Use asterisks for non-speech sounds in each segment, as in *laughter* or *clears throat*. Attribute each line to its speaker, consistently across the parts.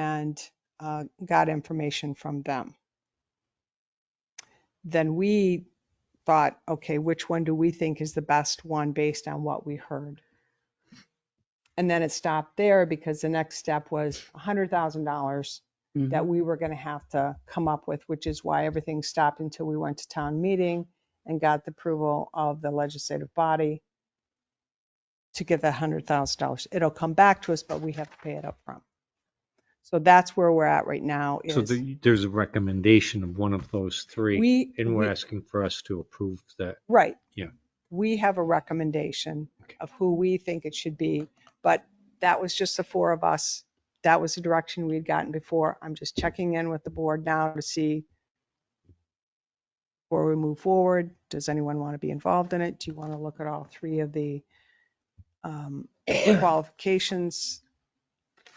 Speaker 1: and uh, got information from them. Then we thought, okay, which one do we think is the best one based on what we heard? And then it stopped there because the next step was $100,000
Speaker 2: Mm-hmm.
Speaker 1: that
Speaker 3: Mm-hmm.
Speaker 1: we were going to have to come up with, which is why everything stopped until we went to town meeting and got the approval of the legislative body to get that hundred thousand dollars. It'll come back to us, but we have to pay it up front. So that's where we're at right now is.
Speaker 3: So the- there's a recommendation of one of those three,
Speaker 1: We,
Speaker 3: and we're
Speaker 1: we-
Speaker 3: asking for us to approve that.
Speaker 1: right.
Speaker 3: Yeah.
Speaker 1: We have a recommendation
Speaker 3: Okay.
Speaker 1: of who we think it should be, but that was just the four of us. That was the direction we'd gotten before. I'm just checking in with the board now to see before we move forward, does anyone want to be involved in it? Do you want to look at all three of the
Speaker 3: *clears throat*
Speaker 1: um, qualifications?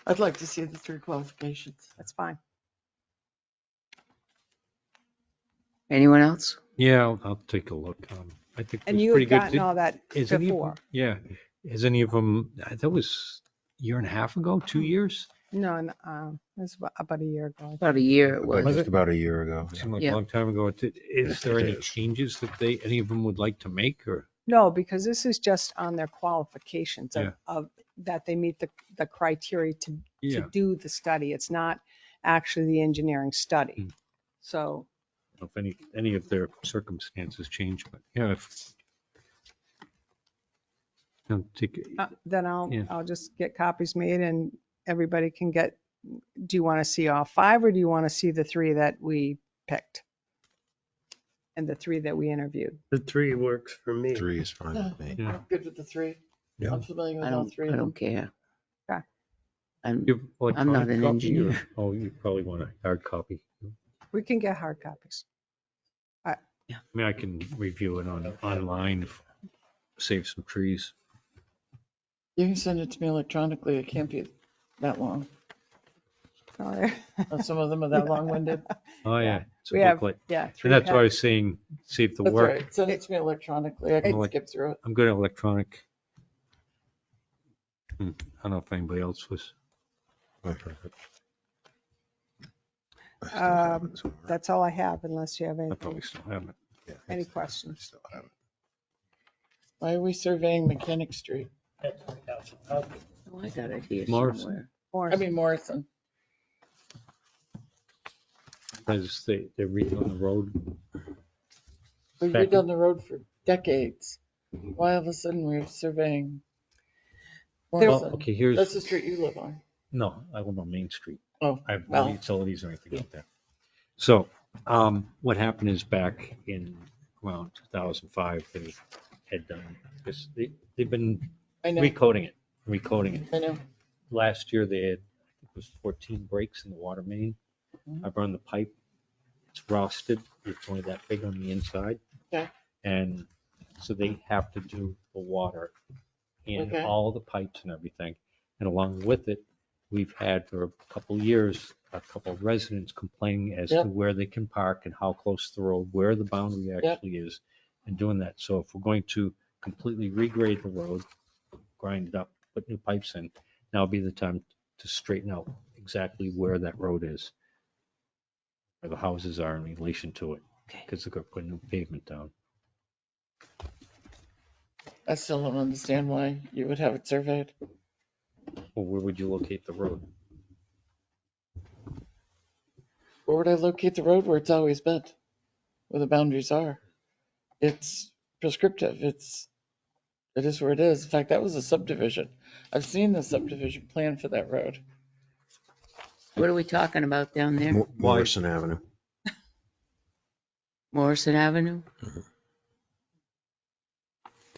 Speaker 4: I'd like to see the three qualifications.
Speaker 1: That's fine.
Speaker 2: Anyone else?
Speaker 3: Yeah, I'll, I'll take a look. Um, I think
Speaker 1: And
Speaker 3: it's
Speaker 1: you
Speaker 3: pretty
Speaker 1: had
Speaker 3: good.
Speaker 1: gotten
Speaker 3: Did-
Speaker 1: all that
Speaker 3: is any of them-
Speaker 1: before.
Speaker 3: Yeah, is any of them, uh, that was a year and a half ago, two
Speaker 1: Mm-hmm.
Speaker 3: years?
Speaker 1: No, and, um, it was about- about a year ago. I think.
Speaker 2: About a year it
Speaker 5: About-
Speaker 2: was.
Speaker 3: Was
Speaker 5: Just
Speaker 3: it?
Speaker 5: about a year ago.
Speaker 3: Seemed like a
Speaker 2: Yeah.
Speaker 3: long time ago. Did- Is there
Speaker 5: It
Speaker 3: any
Speaker 5: is.
Speaker 3: changes that they, any of them would like to make or?
Speaker 1: No, because this is just on their qualifications
Speaker 3: Yeah.
Speaker 1: of, of, that they meet the, the criteria to,
Speaker 3: Yeah,
Speaker 1: to do the study. It's not actually the engineering study.
Speaker 3: Mm.
Speaker 1: So,
Speaker 3: if any, any of their circumstances change, but yeah. if- I'll take-
Speaker 1: uh, then I'll,
Speaker 3: Yeah.
Speaker 1: I'll just get copies made and everybody can get, do you want to see all five or do you want to see the three that we picked? And the three that we interviewed?
Speaker 6: The three works for me.
Speaker 5: Three is fine with
Speaker 4: *laughs*
Speaker 5: me.
Speaker 3: Yeah.
Speaker 4: I'm good with the three.
Speaker 3: Yeah.
Speaker 4: I'm familiar
Speaker 2: I
Speaker 4: with all
Speaker 2: don't,
Speaker 4: three
Speaker 2: I
Speaker 4: of them.
Speaker 2: don't care.
Speaker 1: Okay.
Speaker 2: I'm,
Speaker 3: You have
Speaker 2: I'm not
Speaker 3: electronic
Speaker 2: an
Speaker 3: copy or-
Speaker 2: engineer.
Speaker 3: Oh, you probably want a hard copy. I
Speaker 1: We can get hard copies.
Speaker 3: mean, I can review it on, online, if- save some trees.
Speaker 4: You can send it to me electronically. It can't be that long.
Speaker 1: Sorry.
Speaker 4: Uh, Some of them are
Speaker 2: *laughs*
Speaker 4: that long-winded.
Speaker 3: Oh,
Speaker 1: Yeah.
Speaker 3: yeah. it's a
Speaker 1: We have
Speaker 3: booklet.
Speaker 1: Yeah. three
Speaker 3: And that's why I
Speaker 1: pack-
Speaker 3: was saying, see if the
Speaker 4: That's all
Speaker 3: work,
Speaker 4: right. Send it to me electronically. I can
Speaker 3: It-
Speaker 4: skip through it.
Speaker 3: I'm good at electronic. Hmm, I don't know if anybody else was.
Speaker 5: I still have
Speaker 1: Um,
Speaker 5: it somewhere.
Speaker 1: That's all I have unless you have
Speaker 3: I
Speaker 1: anything.
Speaker 3: probably still haven't.
Speaker 5: Yeah, I
Speaker 1: any
Speaker 5: still- I
Speaker 1: questions?
Speaker 5: still have it.
Speaker 4: Why are we surveying Mechanic Street?
Speaker 2: oh, I got it here
Speaker 3: Morrison.
Speaker 2: somewhere.
Speaker 1: Or-
Speaker 4: I mean Morrison.
Speaker 3: Because they, they're redoing the road.
Speaker 4: We've
Speaker 3: Back-
Speaker 4: been down the road for decades. Why all of a sudden we're surveying
Speaker 3: Well,
Speaker 4: Morrison?
Speaker 3: Oh, okay,
Speaker 4: That's the
Speaker 3: here's,
Speaker 4: street you live on.
Speaker 3: no, I live on Main Street.
Speaker 4: Oh,
Speaker 3: I have no
Speaker 4: well.
Speaker 3: utilities or anything out there. So, um, what happened is back in around two thousand five, they had done, this they, they've been
Speaker 4: I know,
Speaker 3: recoding it, recoding it.
Speaker 4: I know.
Speaker 3: last year they had, I think it was fourteen breaks in the water main.
Speaker 4: Mhm.
Speaker 3: I've run the pipe. It's rusted. It's only that big on the inside.
Speaker 4: Okay.
Speaker 3: And so they have to do the water in
Speaker 4: Okay.
Speaker 3: all the pipes and everything. And along with it, we've had for a couple years, a couple of residents complaining as to
Speaker 4: Yep.
Speaker 3: where they can park and how close to the road, where the boundary actually is and doing that. So if we're going to completely regrade the road, grind it up, put new pipes in, now would be the time to straighten out exactly where that road is, where the houses are in relation to it,
Speaker 2: Okay.
Speaker 3: because they're gonna put new pavement down.
Speaker 4: I still don't understand why you would have it surveyed.
Speaker 3: Well, where would you locate the road?
Speaker 4: Where would I locate the road where it's always been? Where the boundaries are? It's prescriptive. It's, it is where it is. In fact, that was a subdivision. I've seen the subdivision plan for that road.
Speaker 2: What are we talking about down there?
Speaker 5: Mo- Morrison Avenue.
Speaker 2: Morrison Avenue?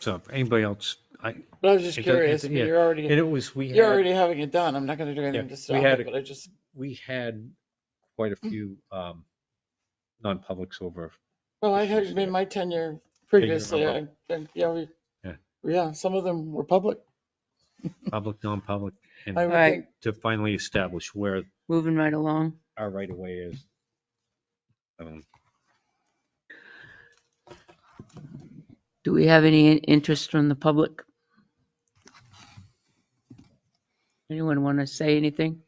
Speaker 3: So if anybody else, I,
Speaker 4: But I was just
Speaker 3: It does-
Speaker 4: curious,
Speaker 3: it-
Speaker 4: but
Speaker 3: yeah.
Speaker 4: you're
Speaker 3: and
Speaker 4: already,
Speaker 3: it was, we
Speaker 4: you're
Speaker 3: had,
Speaker 4: already having it done. I'm not gonna do anything
Speaker 3: Yeah,
Speaker 4: to
Speaker 3: we
Speaker 4: stop
Speaker 3: had
Speaker 4: it,
Speaker 3: it-
Speaker 4: but I just,
Speaker 3: we had quite a few, um, non-publics over.
Speaker 4: well, I had been my tenure previously. I,
Speaker 3: remember.
Speaker 4: and, yeah, we,
Speaker 3: Yeah.
Speaker 4: yeah, some of them were public.
Speaker 3: public, non-public,
Speaker 4: I
Speaker 3: and
Speaker 4: would
Speaker 2: Right.
Speaker 4: think
Speaker 3: to finally establish where
Speaker 2: Moving right along.
Speaker 3: our right of way is. Um,
Speaker 2: Do we have any in- interest from the public? Anyone want to say anything?